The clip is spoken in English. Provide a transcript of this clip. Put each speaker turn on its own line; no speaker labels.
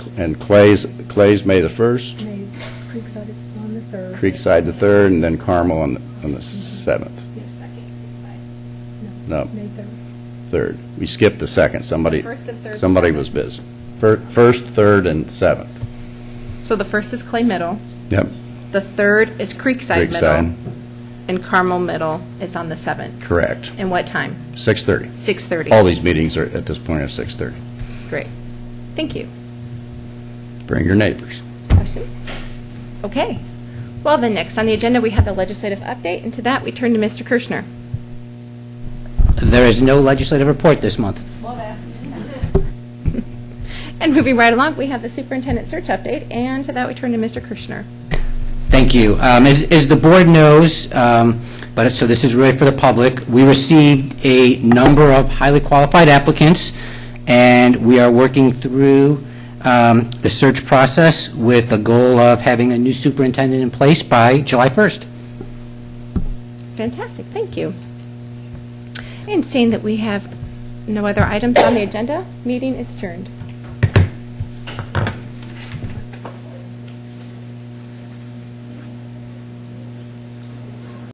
and Clay's, Clay's May the 1st,
May, Creekside on the 3rd.
Creekside the 3rd, and then Carmel on, on the 7th,
The second Creekside.
No.
May 3rd.
3rd. We skipped the 2nd, somebody,
First and third.
somebody was busy. Fir- First, 3rd, and 7th.
So the first is Clay Middle,
Yep,
the third is Creekside
Creekside.
Middle, and Carmel Middle is on the seventh.
correct.
And what time?
6:30.
6:30.
All these meetings are, at this point, are 6:30.
Great. Thank you.
Bring your neighbors.
Questions? Okay. Well, then, next on the agenda, we have the legislative update, and to that, we turn to Mr. Kirschner.
There is no legislative report this month.
And moving right along, we have the superintendent search update, and to that, we turn to Mr. Kirschner.
Thank you. Um, As as the board knows, um, but, so this is really for the public, we received a number of highly qualified applicants, and we are working through um, the search process with the goal of having a new superintendent in place by July 1st.
Fantastic, thank you. And seeing that we have no other items on the agenda, meeting is adjourned.